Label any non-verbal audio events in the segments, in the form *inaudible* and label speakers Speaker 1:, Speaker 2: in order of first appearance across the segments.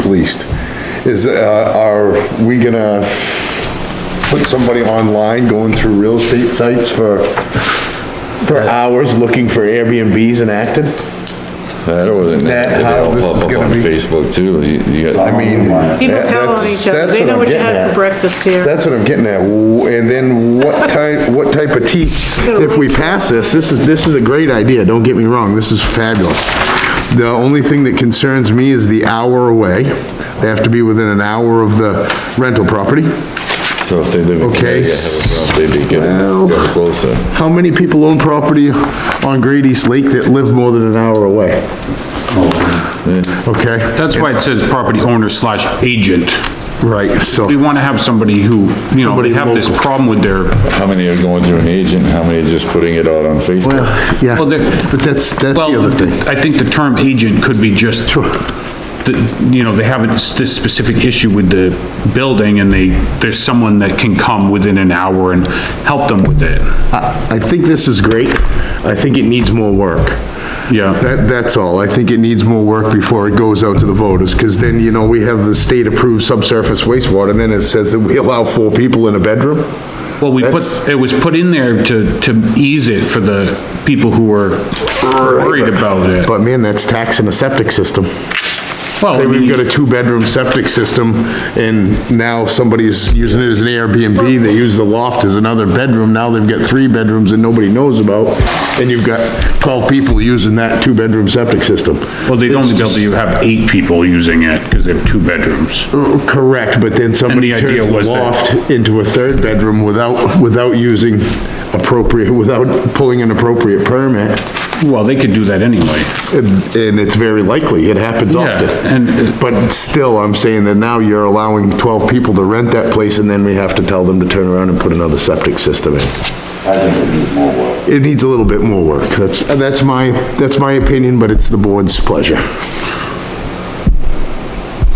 Speaker 1: policed. Is, uh, are we gonna put somebody online going through real estate sites for, for hours looking for Airbnbs in Acton?
Speaker 2: That or
Speaker 1: Is
Speaker 2: that
Speaker 1: that
Speaker 2: they
Speaker 1: how
Speaker 2: all
Speaker 1: this
Speaker 2: pop
Speaker 1: is
Speaker 2: up
Speaker 1: gonna
Speaker 2: on
Speaker 1: be?
Speaker 2: Facebook too. You- you got-
Speaker 1: I mean.
Speaker 3: People
Speaker 1: that-
Speaker 3: tell on
Speaker 1: that's-
Speaker 3: each other,
Speaker 1: that's
Speaker 3: they know
Speaker 1: I'm
Speaker 3: what you
Speaker 1: getting
Speaker 3: had
Speaker 1: at.
Speaker 3: for breakfast here.
Speaker 1: That's what I'm getting at, W- and then what type, what type of tea, if we pass this, this is, this is a great idea, don't get me wrong, this is fabulous. The only thing that concerns me is the hour away, they have to be within an hour of the rental property.
Speaker 2: So if they live in
Speaker 1: Okay.
Speaker 2: Connecticut, have a problem, they'd be getting getting closer.
Speaker 1: How many people own property on Great East Lake that live more than an hour away? Okay,
Speaker 4: That's why it says property owner slash agent.
Speaker 1: right, so,
Speaker 4: We want to have somebody who, you know,
Speaker 1: Somebody
Speaker 4: they have this
Speaker 1: local.
Speaker 4: problem with their,
Speaker 2: How many are going through an agent? How many are just putting it out on Facebook?
Speaker 1: well, yeah,
Speaker 4: Well, there-
Speaker 1: but that's, that's the
Speaker 4: well,
Speaker 1: other thing.
Speaker 4: I think the term agent could be just, the- you know, they have this this specific issue with the building and they, there's someone that can come within an hour and help them with it.
Speaker 1: I I think this is great, I think it needs more work.
Speaker 4: Yeah,
Speaker 1: That, that's all. I think it needs more work before it goes out to the voters, because then, you know, we have the state-approved subsurface wastewater, and then it says that we allow four people in a bedroom?
Speaker 4: well, we put,
Speaker 1: That's-
Speaker 4: it was put in there to, to ease it for the people who were worried about it.
Speaker 1: But man, that's taxing a septic system.
Speaker 4: Well, I
Speaker 1: Say we've
Speaker 4: mean-
Speaker 1: got a two-bedroom septic system, and now somebody's using it as an Airbnb, they use the loft as another bedroom, now they've got three bedrooms that nobody knows about, and you've got 12 people using that two-bedroom septic system.
Speaker 4: Well, they'd only be able to have eight people using it, because they have two bedrooms.
Speaker 1: uh, Correct, but then somebody
Speaker 4: And the idea
Speaker 1: turns the
Speaker 4: was that-
Speaker 1: loft into a third bedroom without, without using appropriate, without pulling an appropriate permit,
Speaker 4: Well, they could do that anyway.
Speaker 1: and and it's very likely, it happens
Speaker 4: Yeah,
Speaker 1: often.
Speaker 4: and- uh,
Speaker 1: But still, I'm saying that now you're allowing 12 people to rent that place, and then we have to tell them to turn around and put another septic system in. It needs a little bit more work, that's, that's my, that's my opinion, but it's the board's pleasure.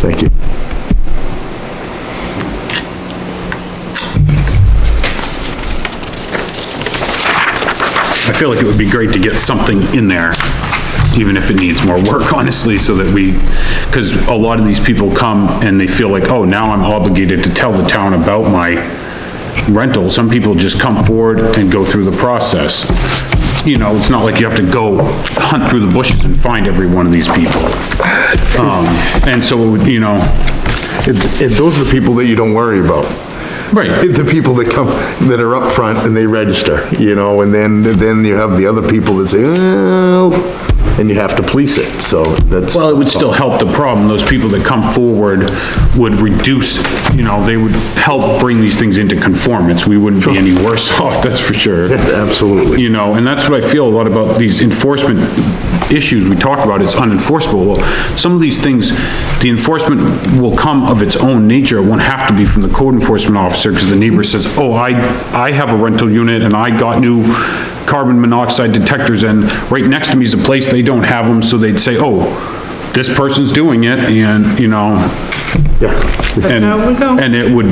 Speaker 1: Thank you.
Speaker 4: I feel like it would be great to get something in there, even if it needs more work, *laughs* honestly, so that we, because a lot of these people come and they feel like, oh, now I'm obligated to tell the town about my rental. Some people just come forward and go through the process. You know, it's not like you have to go hunt through the bushes and find every one of these people. Um, and so, it would, you know,
Speaker 1: It- it- Those are the people that you don't worry about.
Speaker 4: right.
Speaker 1: the people that come, that are up front and they register, you know, and then, then you have the other people that say, well, and you have to police it, so that's.
Speaker 4: Well, it would still help the problem. Those people that come forward would reduce, you know, they would help bring these things into conformance. We wouldn't be any worse *laughs* off, that's for sure.
Speaker 1: *laughs* Absolutely.
Speaker 4: You know, and that's what I feel a lot about these enforcement issues we talk about, it's unenforceable. Well, some of these things, the enforcement will come of its own nature, it won't have to be from the code enforcement officer, because the neighbor says, oh, I, I have a rental unit and I got new carbon monoxide detectors, and right next to me is a place they don't have them, so they'd say, oh, this person's doing it, and, you know,
Speaker 1: Yeah.
Speaker 4: and,
Speaker 3: how we go.
Speaker 4: and it would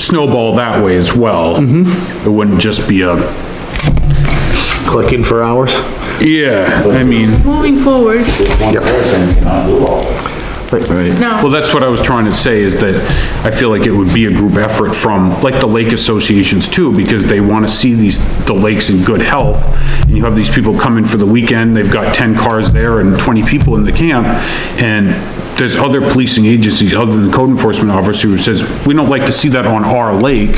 Speaker 4: snowball that way as well.
Speaker 3: Mm-hmm.
Speaker 4: It wouldn't just be a,
Speaker 1: Click in for hours?
Speaker 4: yeah, I mean.
Speaker 3: Moving forward,
Speaker 2: Right.
Speaker 3: no.
Speaker 4: Well, that's what I was trying to say, is that I feel like it would be a group effort from, like the lake associations too, because they want to see these, the lakes in good health. And you have these people come in for the weekend, they've got 10 cars there and 20 people in the camp, and there's other policing agencies, other than the code enforcement officer, who says, we don't like to see that on our lake,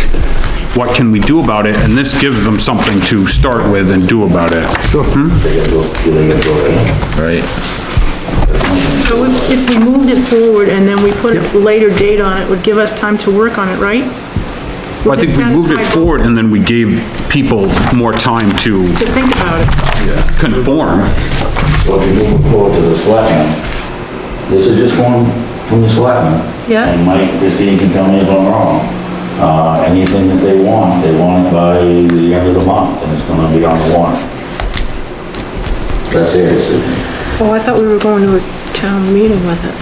Speaker 4: what can we do about it? And this gives them something to start with and do about it.
Speaker 2: Right.
Speaker 3: So if if we moved it forward and then we put a later date on it, would give us time to work on it, right?
Speaker 4: I think we moved it forward and then we gave people more time to
Speaker 3: To think about it.
Speaker 4: conform.
Speaker 5: So if you move it forward to the selectmen, this is just going from the selectmen.
Speaker 3: Yeah.
Speaker 5: And Mike, Christine can tell me if I'm wrong. Uh, anything that they want, they want it by the end of the month, and it's gonna be on the warrant. That's their decision.
Speaker 3: Oh, I thought we were going to a town meeting with it.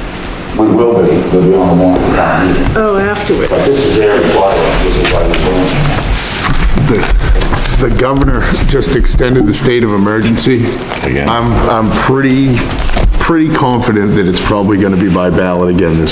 Speaker 5: We will be, we'll be on the warrant for town meeting.
Speaker 3: Oh, afterward.
Speaker 5: But this is their requirement, this is why we're doing it.
Speaker 1: The, the governor just extended the state of emergency.
Speaker 2: Again.
Speaker 1: I'm, I'm pretty, pretty confident that it's probably gonna be by ballot again this